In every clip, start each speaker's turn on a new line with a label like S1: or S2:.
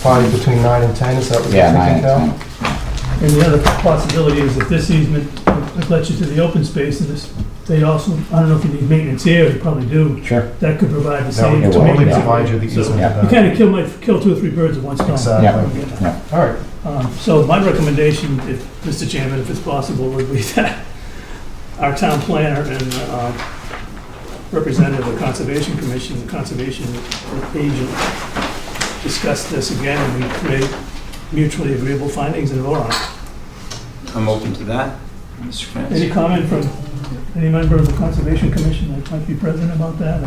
S1: probably between nine and 10, is that what you're
S2: Yeah, nine,
S1: thinking now?
S2: ten.
S3: And the other possibility is if this easement would let you to the open space, and this, they also, I don't know if you need maintenance here, you probably do,
S2: Sure.
S3: that could provide the
S1: That
S3: same.
S1: would
S2: it
S1: totally
S2: yeah.
S3: maintenance.
S1: provide you the easement
S3: So
S1: of
S2: Yeah.
S3: You
S1: that.
S3: kind of kill my, kill two or three birds with one stone.
S1: Exactly.
S2: Yeah.
S1: All right,
S3: Um, So my recommendation, if, Mr. Chairman, if it's possible, would be that our town planner and uh, representative of the Conservation Commission, the conservation agent, discuss this again, and we create mutually agreeable findings and vote on it.
S4: I'm open to that, Mr.
S3: Any
S4: France.
S3: comment from any member of the Conservation Commission that might be present about that?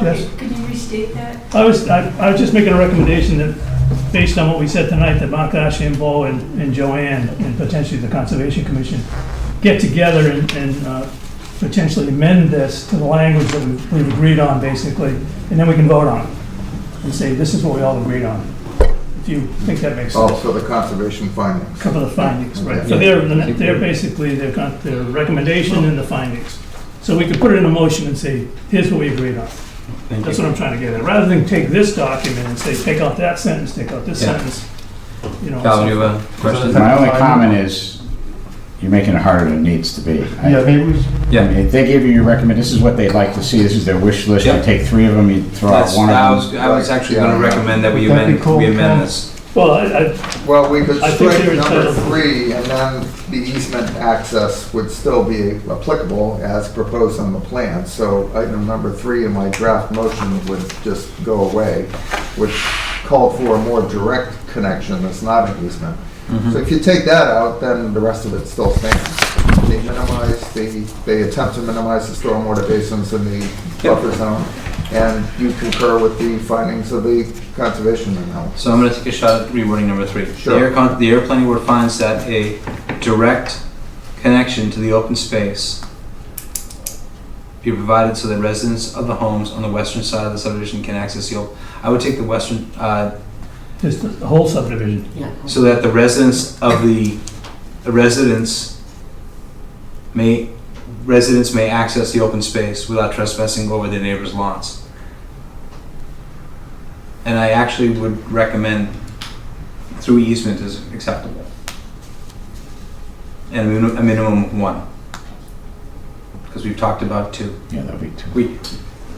S3: Yes.
S5: Okay, could you restate that?
S3: I was, I I was just making a recommendation that, based on what we said tonight, that Mark Ashambo and and Joanne, and potentially the Conservation Commission, get together and- and uh, potentially amend this to the language that we've we've agreed on, basically, and then we can vote on it, and say, this is what we all agreed on, if you think that makes sense.
S6: Oh, so the conservation findings.
S3: Cover the findings, right. So
S6: Yeah.
S3: they're, they're basically, they've got their recommendation and the findings. So we could put it in a motion and say, here's what we agreed on.
S4: Thank
S3: That's
S4: you.
S3: what I'm trying to get at. Rather than take this document and say, take out that sentence, take out this
S4: Yeah.
S3: sentence, you know.
S4: Val, you
S3: so-
S4: have a question?
S2: My only comment is, you're making it harder than it needs to be. I-
S1: yeah, maybe we,
S2: I mean, If they give you your recommend, this is what they'd like to see, this is their wish list, you
S4: Yeah.
S2: take three of them, you throw out
S4: That's,
S2: one
S4: I
S2: of them.
S4: was, I was actually gonna recommend that we
S1: Would that be
S4: amend,
S1: cool,
S4: we
S1: Cal?
S4: amend this.
S3: Well, I, I,
S6: Well, we could
S3: I think
S6: strike
S3: they're
S6: number
S3: entitled-
S6: three, and then the easement access would still be applicable as proposed on the plan. So item number three in my draft motion would just go away, which called for a more direct connection that's not an easement. So if you take that out, then the rest of it still stands. They minimize, they, they attempt to minimize the stormwater basins in the buffer zone, and you concur with the findings of the conservation analysis.
S4: So I'm gonna take a shot at rewording number three. The
S6: Sure.
S4: air con, the air planning board finds that a direct connection to the open space be provided so that residents of the homes on the western side of the subdivision can access the, op- I would take the western, uh,
S3: just the whole subdivision.
S5: Yeah.
S4: so that the residents of the, the residents may, residents may access the open space without trespassing over their neighbor's lawns. And I actually would recommend through easement is acceptable. And a minu- a minimum of one. Because we've talked about two.
S2: Yeah, that'd be two.
S4: We,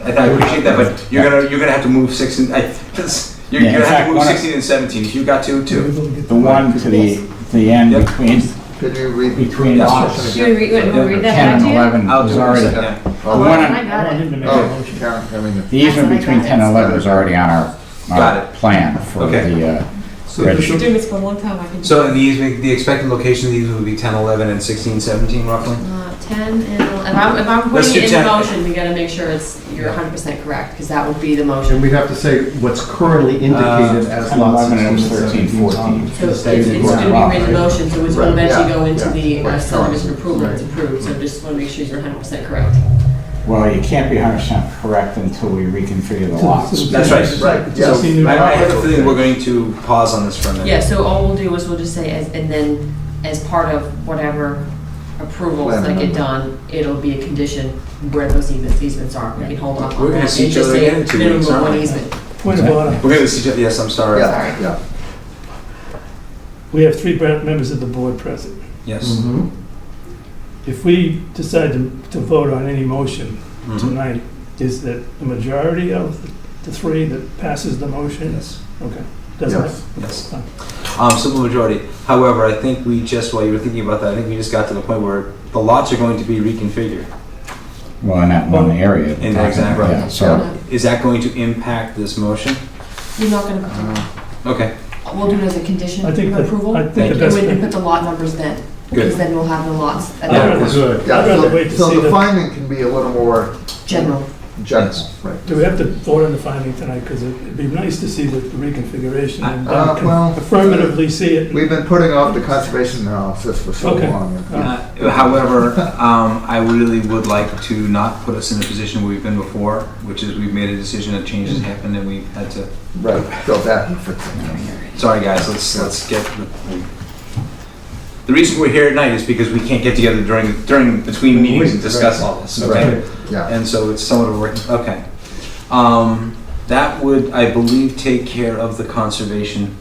S4: I I appreciate that, but you're gonna, you're gonna have to move six and, I, you're
S2: Yeah, in
S4: gonna have
S2: fact,
S4: to move
S2: one of-
S4: sixteen and seventeen. If you got two, two.
S2: The one to the, the end
S4: Yep.
S2: between,
S6: Could you read
S2: between
S4: Yes,
S2: lots
S5: Should we read, wait, we'll read that
S2: ten and
S5: back to you?
S2: eleven
S4: I'll
S2: was
S4: do
S2: already,
S4: it.
S2: the
S4: Yeah.
S5: Oh,
S2: one
S5: I
S2: on-
S3: I
S5: got
S3: want him
S5: it.
S3: to make a
S6: Oh,
S3: motion.
S6: Karen, I mean,
S2: easement
S5: That's what I
S2: between
S5: got.
S2: ten and eleven was already on our,
S4: Got
S2: our
S4: it.
S2: plan for
S4: Okay.
S2: the, uh,
S4: So
S2: Right.
S5: Been doing this for a long time, I can. do
S4: So
S5: it.
S4: the easement, the expected location of these would be 10, 11, and 16, 17 roughly?
S5: Uh, Ten and, el- if I'm, if I'm
S4: Let's
S5: putting it
S4: do
S5: in the
S4: 10.
S5: motion, we gotta make sure it's, you're hundred percent correct, because that would be the
S1: and
S5: motion.
S1: we'd have to say what's currently indicated as
S2: and
S1: lot
S2: 11 and
S1: 16,
S2: 13,
S1: 17,
S2: 14.
S5: So it's,
S1: stated
S5: it's
S1: where
S5: gonna
S1: I'm at,
S5: be written
S1: right?
S5: motion, so it's
S6: Right,
S5: gonna eventually
S6: yeah,
S5: go into
S6: yeah.
S5: the uh,
S6: Right,
S5: subdivision
S6: correct.
S5: approval, it's
S6: Right.
S5: approved, so just wanna make sure you're hundred percent correct.
S2: well, you can't be hundred percent correct until we reconfigure the lots.
S4: That's right.
S6: Right,
S3: So-
S6: yeah.
S4: I I have a feeling we're going to pause on this for a minute.
S5: Yeah, so all we'll do is we'll just say, as and then, as part of whatever approvals
S6: Plan
S5: that get
S6: amendment.
S5: done, it'll be a condition where those easements, easements are, we can hold off on that.
S4: We're gonna see
S5: and
S4: each
S5: just
S4: other
S5: say
S4: again in two
S5: minimum
S4: weeks,
S5: of
S4: aren't
S5: one
S4: we?
S5: easement.
S3: Point of order.
S4: We're going to see, yes, I'm sorry.
S6: Yeah, yeah.
S3: We have three bre- members of the board present.
S4: Yes.
S1: Mhm.
S3: If we decide to, to vote on any motion
S4: Mhm.
S3: tonight, is that the majority of the three that passes the motion?
S4: Yes.
S3: Okay. Doesn't
S6: Yes.
S3: it?
S4: Yes. Um, simple majority. However, I think we just, while you were thinking about that, I think we just got to the point where the lots are going to be reconfigured.
S2: Well, in that one area.
S4: In that exact-
S2: Yeah,
S4: right.
S2: So.
S4: Is that going to impact this motion?
S5: You're not
S4: Uh-huh.
S5: gonna,
S6: Uh,
S4: Okay,
S5: we'll do it as a condition
S3: I
S5: of
S3: think, that-
S5: approval?
S3: I think the
S5: And
S3: best
S5: we can
S3: thing,
S5: put the lot numbers then, because
S4: good.
S5: then we'll have the lots at
S3: I'd
S5: that
S4: Yeah.
S3: rather,
S1: Good.
S6: yeah,
S3: I'd rather
S6: so-
S3: wait to see
S6: So the
S3: the,
S6: finding can be a little more
S5: general.
S6: general,
S4: Yes.
S6: right?
S3: do we have to vote on the finding tonight? Because it'd be nice to see the the reconfiguration and
S6: Uh,
S3: then con-
S6: well,
S3: affirmatively see it.
S6: We've been putting off the conservation analysis for so
S3: Okay.
S6: long.
S4: Uh, However, um, I really would like to not put us in a position where we've been before, which is we've made a decision, a change has happened, and we've had to
S6: Right, go back and fix it.
S4: Sorry, guys, let's, let's get, the reason we're here at night is because we can't get together during, during, between meetings and discuss all this, okay?
S6: Right, yeah.
S4: And so it's somewhat of a working, okay. Um, That would, I believe, take care of the conservation